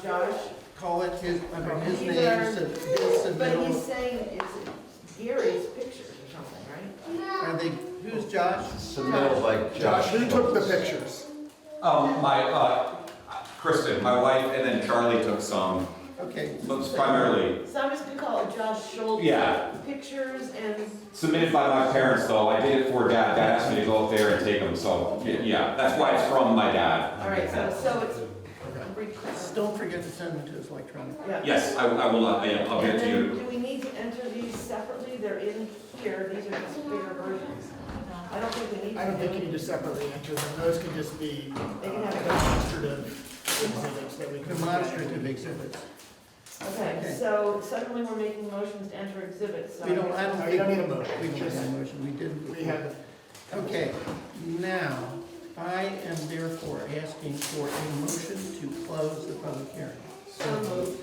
Josh call it his, under his These name, are- sub- his But he's submittal, saying it's Gary's pictures or something, right? are they, who's Josh? Submitted by Josh. Josh, who took the pictures? Um, my, uh, Kristen, my wife, and then Charlie took some, Okay. but primarily So I'm just gonna call it Josh Schultz. Yeah. Pictures and, submitted by my parents, though. I did it for dad. Dad asked me to go up there and take them, so, yeah, that's why it's from my dad. all right, so, so it's. Just recorded. Don't forget to send them to us electronically. Yeah. Yes, I, I will, uh, yeah, I'll get And it to then, you. do we need to enter these separately? They're in here, these are just bigger versions. I don't think we need to. I don't think you need to separately enter them, those can just be uh, They can have- demonstrative exhibits that we can. Demonstrative exhibits. Okay, so suddenly we're making motions to enter exhibits, so. We don't, I don't No, think. you don't need a motion. We don't Just- have a motion, we didn't. We have, Okay, now, I am therefore asking for a motion to close the public hearing. So moved.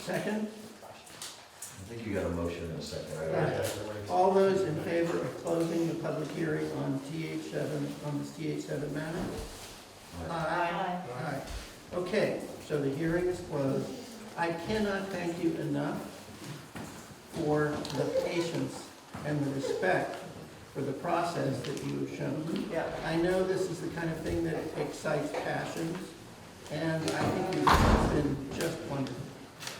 Second, I think you got a motion in a second, right? Yeah. all those in favor of closing the public hearing on TH seven, on this TH seven matter? Aye. Aye. Okay, so the hearing is closed. I cannot thank you enough for the patience and the respect for the process that you have shown. Yeah. I know this is the kind of thing that excites passions, and I think you've been just wonderful.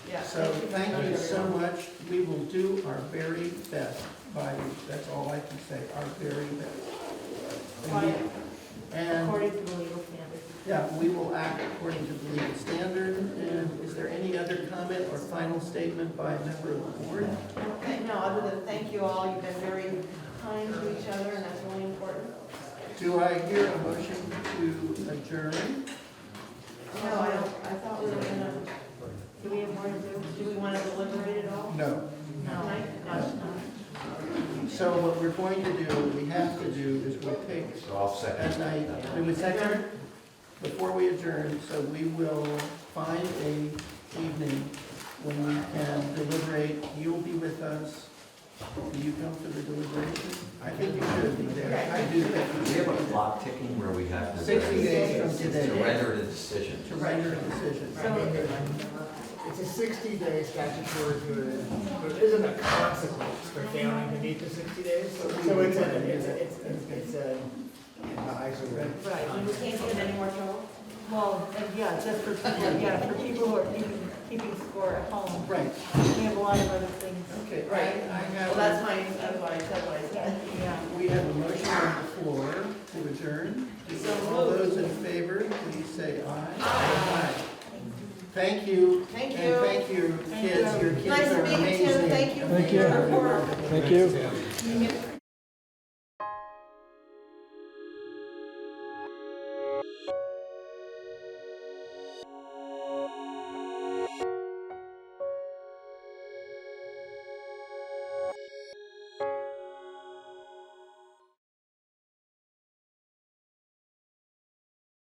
Yeah. So thank you so everyone. much. We will do our very best by you. That's all I can say, our very best. And we- And, According to the legal standard. yeah, we will act according to the legal standard. And is there any other comment or final statement by a member of the board? Okay, No, other than thank you all, you've been very kind to each other, and that's really important. Do I hear a motion to adjourn? No, I don't, I thought we were gonna, do we have more to do? Do we want to deliberate at all? No. Tonight? No. So what we're going to do, what we have to do is we'll pick So I'll second. at night, we would second, before we adjourn, so we will find a evening when we can deliberate, you'll be with us, do you come to the deliberation? I think you should be there, I do think Do you we have a should be clock ticking where we have to? there. Sixty days from To today, render the decision. to render a decision. it's a sixty-day statutory period, there isn't a consequence for failing to meet the sixty days, so so it's a, it's a, it's a- it's a, uh, actually, Right, and we can't get any more trouble? Well, and yeah, just for, yeah, for people who are keeping, keeping score at home, Right, we have a lot of other things, okay, I Right. Well, I that's have, my, that's why I said what I yeah, said. yeah. we have a motion on the floor to adjourn, So all moved. those in favor, please say aye. Aye. Thank you. Thank And you. thank your kids, your kids Nice to are meet you, amazing. too. Thank you for your work. Thank you. You get-